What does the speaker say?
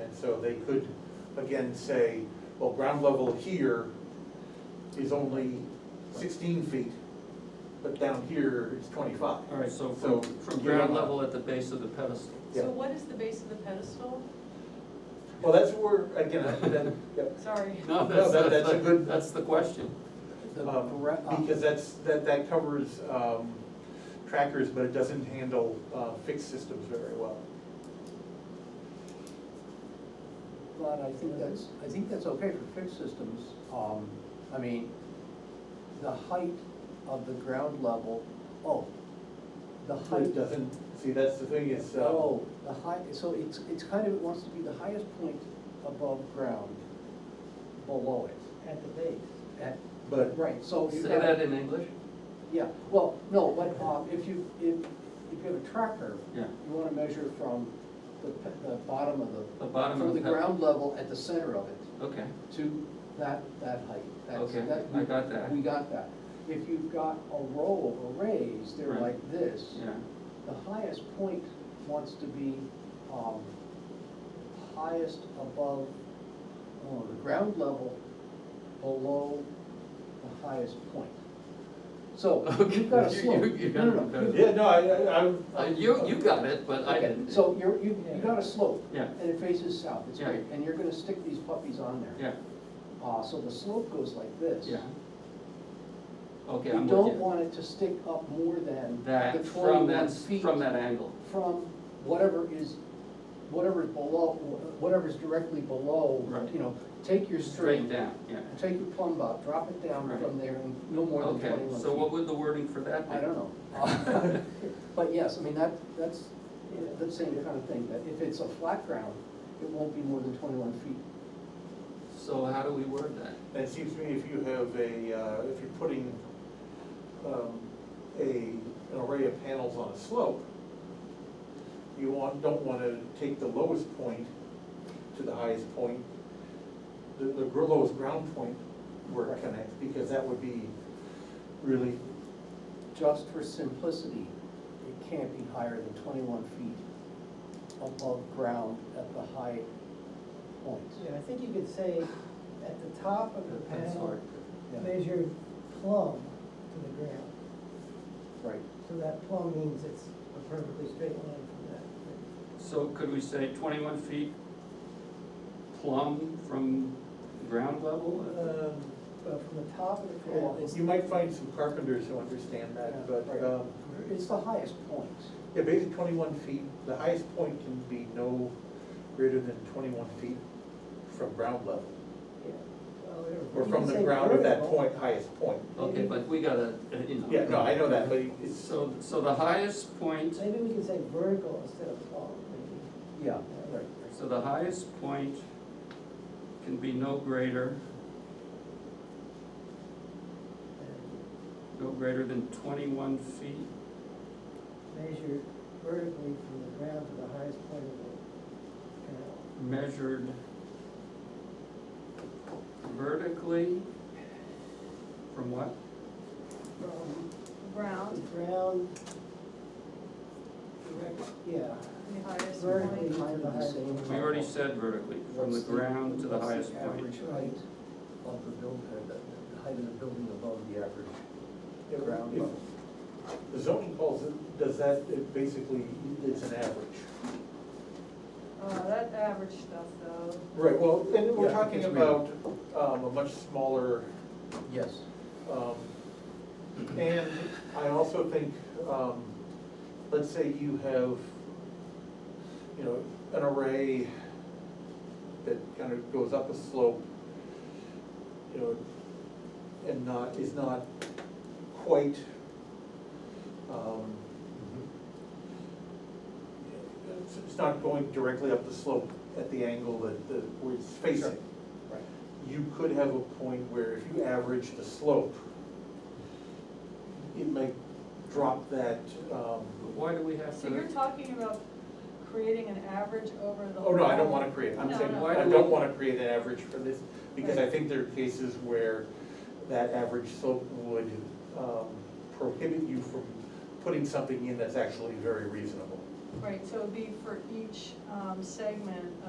And so they could, again, say, well, ground level here is only sixteen feet, but down here is twenty-five. All right, so So, from, from you're ground not- level at the base of the pedestal. Yeah. So what is the base of the pedestal? Well, that's where, again, I- that, yep. Sorry. No, No, that's, but that's, that's a good- that's the question. The Um, bre- uh, Because that's, that, that covers um, trackers, but it doesn't handle uh, fixed systems very well. But I think that's, I think that's okay for fixed systems. Um, I mean, the height of the ground level, oh, the So It height. doesn't, see, that's the thing, is, uh, Oh, the high, so it's, it's kind of, it wants to be the highest point above ground, below it. At the base. At- but, Right, so Oh, you Say got- that in English? Yeah, well, no, but um, if you, if, if you have a tracker, Yeah. you wanna measure from the, pe- the bottom of the. The bottom of From the the ped- ground level at the center of it. Okay, to that, that height. That's- Okay, that- I got that. We got that. If you've got a row of arrays, they're Right. like this. yeah, The highest point wants to be, um, highest above, oh, the ground level, below the highest point. So, Okay, you've got a you- slope. you- you No, no, got it. no, you- yeah, no, I- I, Uh, I. you, you got it, but I okay, didn't. So you're, you, you Yeah. got a slope. Yeah. And it faces south, it's Yeah. great, and you're gonna stick these puppies on there. Yeah, Uh, so the slope goes like this. yeah. Okay, We I'm don't with you. want it to stick up more than the That, from twenty-one that, feet. from that angle, From whatever is, whatever's below, whatever's directly below, Right. you know, take your string. straight down, yeah. Take your plumb up, drop it down Right. from there, and no more than Okay, twenty-one feet. so what would the wording for that be? I don't know. But yes, I mean, that, that's, that's the same kind of thing, that if it's a flat ground, it won't be more than twenty-one feet. So how do we word that? It seems to me if you have a, uh, if you're putting um, a, an array of panels on a slope, you want, don't want to take the lowest point to the highest point, the, the gr- lowest ground point where it Right. connects, because that would be really, Just for simplicity, it can't be higher than twenty-one feet above ground at the high points. Yeah, I think you could say, at the top of the That's panel, hard. Yeah, measure plumb to the ground. Right. So that plumb means it's a perfectly straight line from that. So could we say twenty-one feet plumb from ground level? um, But from the top of the Well, panel, it's- you might find some carpenters who understand that, but, Right. um, It's the highest point. yeah, basically twenty-one feet, the highest point can be no greater than twenty-one feet from ground level, yeah. well, whatever. or You from could the say ground of that vertical. point, highest point. Okay, but we gotta, uh, you know. Yeah, no, I know that, but it's, So, so the highest point, Maybe we could say vertical instead of plumb, maybe. Yeah, right. so the highest point can be no greater, And no greater than twenty-one feet. Measure vertically from the ground to the highest point of the panel. measured vertically from what? From the ground, ground, direct, yeah, the highest vertically point. to the highest point. We already said vertically, from the What's ground to the what's highest point. Average height of the building, uh, the, the height of the building above the average If- ground if- level. the zoning calls, it- does that, it basically, it's an average. Uh, that average stuff though, Right, well, and we're Yeah, talking it's about um, a much smaller, Yes. um, and I also think, um, let's say you have, you know, an array that kind of goes up a slope, you know, and not, is not quite, um, Mm-hmm. It's- It's not going directly up the slope at the angle that, that where it's facing. Right. You could have a point where if you average the slope, it might drop that, um, But Why do we have so you're to, talking about creating an average over the. oh no, I don't whole- wanna create, I'm No, saying, no. Why I do don't we- wanna create an average for this, because I think there are cases where that average slope would, um, prohibit you from putting something in that's actually very reasonable. Right, so it'd be for each, um, segment